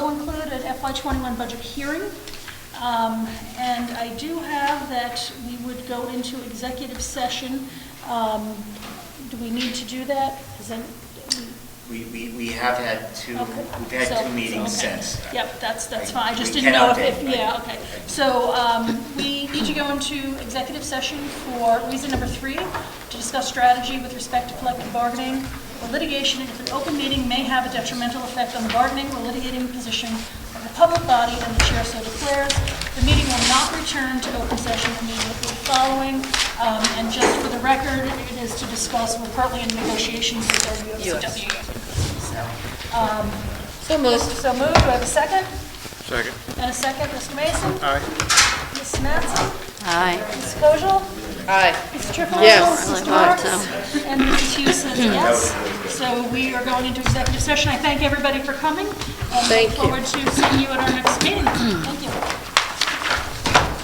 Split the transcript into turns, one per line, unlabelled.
FY '21 budget hearing. Um, And I do have that we would go into executive session. Um, Do we need to do that? Is that-
We, we, we have had two,
okay.
we've had
So-
two meetings
okay.
since.
Yep, that's, that's
I-
fine, I just
we
didn't know
cannot
if, if-
date, right.
yeah, okay. So um, we need to go into executive session for reason number three, to discuss strategy with respect to collective bargaining or litigation, if an open meeting may have a detrimental effect on the bargaining or litigating position of the public body, and the chair so declares. The meeting will not return to open session immediately following. Um, And just for the record, it is to discuss, we're currently in negotiations with WFCW. So, um,
So moved.
so moved, do I have a second?
Second.
And a second, Mr. Mason?
Aye.
Ms. Mattson?
Aye.
Ms. Kojal?
Aye.
Ms. Triplett?
Yes.
Ms.
Aye, Hmm.
Dorfs?
so.
And Mrs. Hughes says yes. So we are going into executive session. I thank everybody for coming.
Thank you.
And look forward to seeing you at our next meeting.